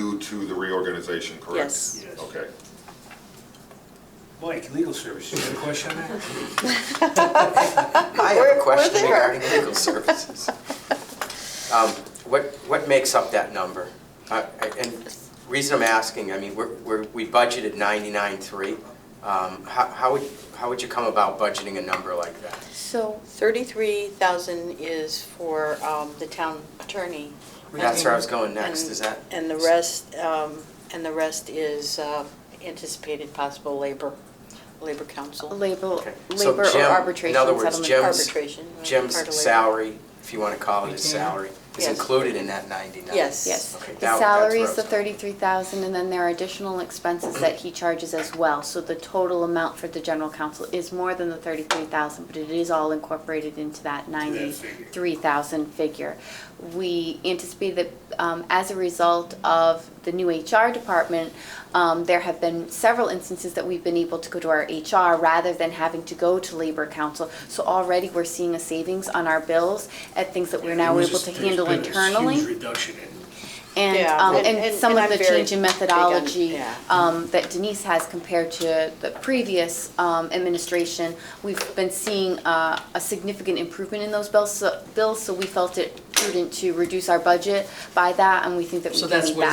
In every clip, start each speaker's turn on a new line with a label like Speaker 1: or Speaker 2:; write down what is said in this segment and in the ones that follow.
Speaker 1: to the reorganization, correct?
Speaker 2: Yes.
Speaker 3: Yes.
Speaker 1: Okay.
Speaker 3: Mike, legal services, you have a question on that?
Speaker 4: I
Speaker 2: We're-
Speaker 4: have a
Speaker 2: we're
Speaker 4: question
Speaker 2: there.
Speaker 4: regarding legal services. Um, What, what makes up that number? Uh, And reason I'm asking, I mean, we're, we're- we budgeted 99.3. Um, How, how would, how would you come about budgeting a number like that?
Speaker 2: So 33,000 is for um, the town attorney.
Speaker 4: That's where I was going
Speaker 2: And-
Speaker 4: next, is that?
Speaker 2: And the rest, um, and the rest is uh, anticipated possible labor, labor council.
Speaker 5: Label,
Speaker 4: Okay. So
Speaker 5: labor or
Speaker 4: Jim-
Speaker 5: arbitration settlement.
Speaker 4: In other words,
Speaker 2: Arbitration,
Speaker 4: Jim's,
Speaker 2: right, uh, part of
Speaker 4: Jim's
Speaker 2: labor.
Speaker 4: salary, if you want to call it his
Speaker 3: Mhm.
Speaker 4: salary, is
Speaker 2: Yes.
Speaker 4: included in that 99.
Speaker 2: Yes.
Speaker 5: Yes,
Speaker 4: Okay, that-
Speaker 5: the
Speaker 4: that's
Speaker 5: salary
Speaker 4: where I
Speaker 5: is the
Speaker 4: was going.
Speaker 5: thirty-three thousand, and then there are additional expenses that he charges as well. So the total amount for the general counsel is more than the thirty-three thousand, but it is all incorporated into that ninety-three thousand figure. We anticipate that um, as a result of the new HR department, um, there have been several instances that we've been able to go to our HR rather than having to go to labor council. So already we're seeing a savings on our bills at things that we're now
Speaker 3: There was
Speaker 5: able
Speaker 3: a-
Speaker 5: to handle
Speaker 3: there's been a
Speaker 5: internally.
Speaker 3: Huge reduction in,
Speaker 5: And,
Speaker 2: Yeah,
Speaker 5: um,
Speaker 2: and-
Speaker 5: and
Speaker 2: and-
Speaker 5: some
Speaker 2: and
Speaker 5: of
Speaker 2: I'm
Speaker 5: the
Speaker 2: very
Speaker 5: change in
Speaker 2: big on-
Speaker 5: methodology,
Speaker 2: yeah.
Speaker 5: um, that Denise has compared to the previous, um, administration, we've been seeing, uh, a significant improvement in those bills, so, bills, so we felt it prudent to reduce our budget by that, and we think that we
Speaker 6: So
Speaker 5: can
Speaker 6: that's
Speaker 5: meet
Speaker 6: where the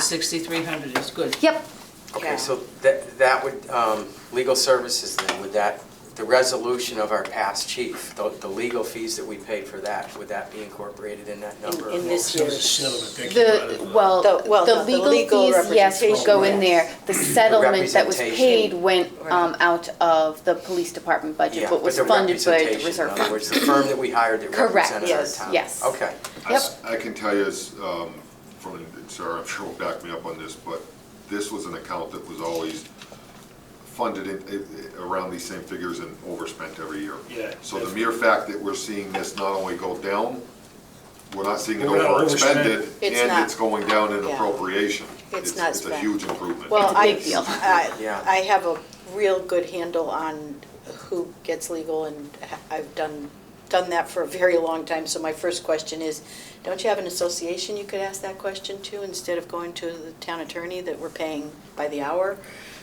Speaker 5: that.
Speaker 6: 6,300 is good.
Speaker 5: Yep,
Speaker 2: Yeah.
Speaker 4: Okay, so that, that would, um, legal services then, would that, the resolution of our past chief, the, the legal fees that we paid for that, would that be incorporated in that number?
Speaker 2: in
Speaker 4: or-
Speaker 2: this
Speaker 3: so it's a settlement, that came out of
Speaker 5: the, well,
Speaker 2: The- well,
Speaker 5: the
Speaker 2: no, the
Speaker 5: legal
Speaker 2: legal
Speaker 5: fees, yes, would go in
Speaker 2: representation,
Speaker 5: there. The settlement that was paid
Speaker 4: representation.
Speaker 5: went, um,
Speaker 2: Right.
Speaker 5: out of the police department budget,
Speaker 4: Yeah,
Speaker 5: but was
Speaker 4: the
Speaker 5: funded by the
Speaker 4: representation,
Speaker 5: reserve
Speaker 4: In other
Speaker 5: fund.
Speaker 4: words, the firm that we hired that
Speaker 5: Correct,
Speaker 4: represented our
Speaker 2: yes,
Speaker 4: town.
Speaker 5: yes.
Speaker 4: Okay.
Speaker 1: I
Speaker 5: Yep.
Speaker 1: s- I can tell you, as, um, from, Sarah, I'm sure will back me up on this, but this was an account that was always funded in, i- i- around these same figures and overspent every year.
Speaker 3: Yeah.
Speaker 1: So the mere fact that we're seeing this not only go down, we're not seeing it
Speaker 3: We're not
Speaker 1: overexpended,
Speaker 3: overspent.
Speaker 2: It's
Speaker 1: and
Speaker 2: not-
Speaker 1: it's going down in
Speaker 2: yeah.
Speaker 1: appropriation.
Speaker 2: It's not
Speaker 1: It's a
Speaker 2: spent.
Speaker 1: huge improvement.
Speaker 2: Well, I,
Speaker 5: big deal.
Speaker 2: I,
Speaker 4: Yeah.
Speaker 2: I have a real good handle on who gets legal, and ha- I've done, done that for a very long time. So my first question is, don't you have an association you could ask that question to, instead of going to the town attorney that we're paying by the hour?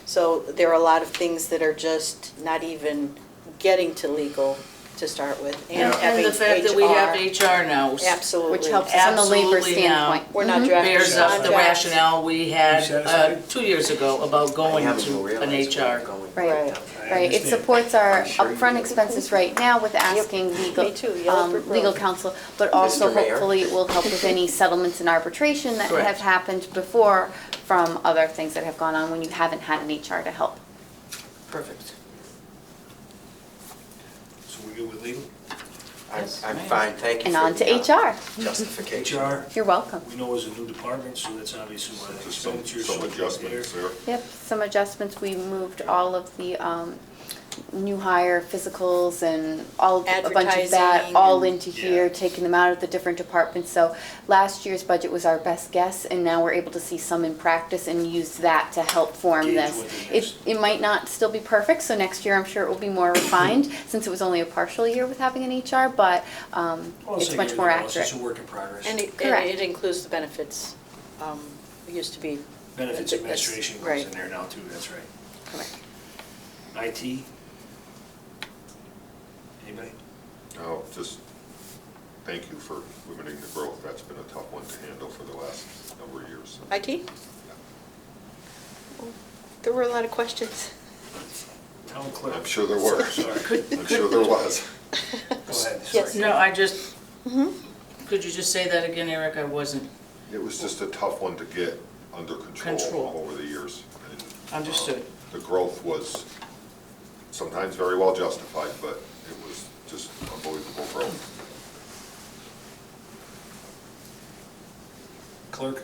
Speaker 2: So there are a lot of things that are just not even getting to legal to start with, and having
Speaker 6: And the fact that we have
Speaker 2: HR.
Speaker 6: HR now
Speaker 2: Absolutely.
Speaker 5: Which helps us on the labor
Speaker 6: Absolutely now.
Speaker 5: standpoint.
Speaker 2: We're
Speaker 6: Mm-hmm.
Speaker 2: not drafting
Speaker 6: bears up the
Speaker 2: contracts.
Speaker 6: rationale we
Speaker 3: You
Speaker 6: had uh,
Speaker 3: satisfied?
Speaker 6: two years ago about
Speaker 4: I
Speaker 6: going
Speaker 4: haven't even
Speaker 6: to an
Speaker 4: realized where
Speaker 6: HR.
Speaker 4: we're going.
Speaker 5: Right,
Speaker 2: Right.
Speaker 3: I
Speaker 5: right. It
Speaker 3: understand.
Speaker 5: supports our
Speaker 4: I'm sure you
Speaker 5: upfront
Speaker 4: do.
Speaker 5: expenses right now with asking legal,
Speaker 2: Me too, Yellow
Speaker 5: um,
Speaker 2: Brick Road.
Speaker 5: legal counsel, but also
Speaker 4: Mr. Mayor.
Speaker 5: hopefully it will help with any settlements and arbitration that
Speaker 6: Correct.
Speaker 5: have happened before from other things that have gone on when you haven't had an HR to help.
Speaker 6: Perfect.
Speaker 3: so we go with legal?
Speaker 4: I'm,
Speaker 6: Yes,
Speaker 4: I'm
Speaker 6: ma'am.
Speaker 4: fine, thank you.
Speaker 5: And
Speaker 4: for
Speaker 5: on
Speaker 4: the,
Speaker 5: to
Speaker 4: uh,
Speaker 5: HR.
Speaker 4: Justification.
Speaker 3: HR,
Speaker 5: You're welcome.
Speaker 3: we know is a new department, so that's obviously why the
Speaker 1: Just some,
Speaker 3: expenditures.
Speaker 1: some
Speaker 3: are there.
Speaker 1: adjustments there.
Speaker 5: Yep, some adjustments. We moved all of the um, new hire physicals and all, a bunch of that,
Speaker 2: Advertising
Speaker 5: all
Speaker 2: and-
Speaker 5: into here,
Speaker 3: Yeah.
Speaker 5: taking them out of the different departments. So last year's budget was our best guess, and now we're able to see some in practice and use that to help form
Speaker 3: Gauge
Speaker 5: this.
Speaker 3: what the
Speaker 5: It, it might not still be perfect, so next year I'm sure it will be more refined, since it was only a partial year with having an HR, but um,
Speaker 3: Well,
Speaker 5: it's
Speaker 3: like
Speaker 5: much
Speaker 3: everything
Speaker 5: more
Speaker 3: else,
Speaker 5: accurate.
Speaker 3: It's a work in progress.
Speaker 2: And it,
Speaker 5: Correct.
Speaker 2: and it includes the benefits. Um, It used to be.
Speaker 3: Benefits
Speaker 2: That's-
Speaker 3: administration goes
Speaker 2: right.
Speaker 3: in there now too, that's right.
Speaker 2: Correct.
Speaker 3: IT? Anybody?
Speaker 1: Oh, just thank you for limiting the growth. That's been a tough one to handle for the last number of years. so.
Speaker 2: IT? There were a lot of questions.
Speaker 3: Town clerk?
Speaker 1: I'm sure there were.
Speaker 3: Sorry.
Speaker 1: I'm sure there was.
Speaker 3: Go ahead.
Speaker 2: Yes.
Speaker 3: sorry.
Speaker 6: No, I just,
Speaker 2: Mhm.
Speaker 6: could you just say that again, Eric? I wasn't.
Speaker 1: It was just a tough one to get under control
Speaker 6: Control.
Speaker 1: over the years. and, uh,
Speaker 6: Understood.
Speaker 1: The growth was sometimes very well justified, but it was just unbelievable growth.
Speaker 3: Clerk?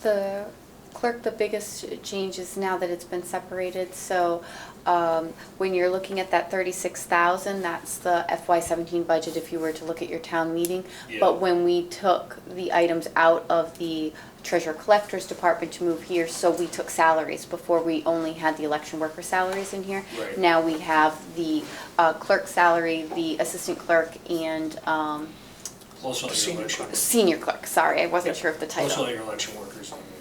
Speaker 5: The clerk, the biggest change is now that it's been separated, so um, when you're looking at that 36,000, that's the FY17 budget if you were to look at your town meeting.
Speaker 3: Yeah.
Speaker 5: But when we took the items out of the treasurer collector's department to move here, so we took salaries. Before, we only had the election worker salaries in here.
Speaker 3: Right.
Speaker 5: Now we have the uh, clerk salary, the assistant clerk, and um,
Speaker 3: Also on your election.
Speaker 5: senior clerk, sorry, I wasn't
Speaker 3: Yeah.
Speaker 5: sure of the title.
Speaker 3: Oh, Also on your election workers. and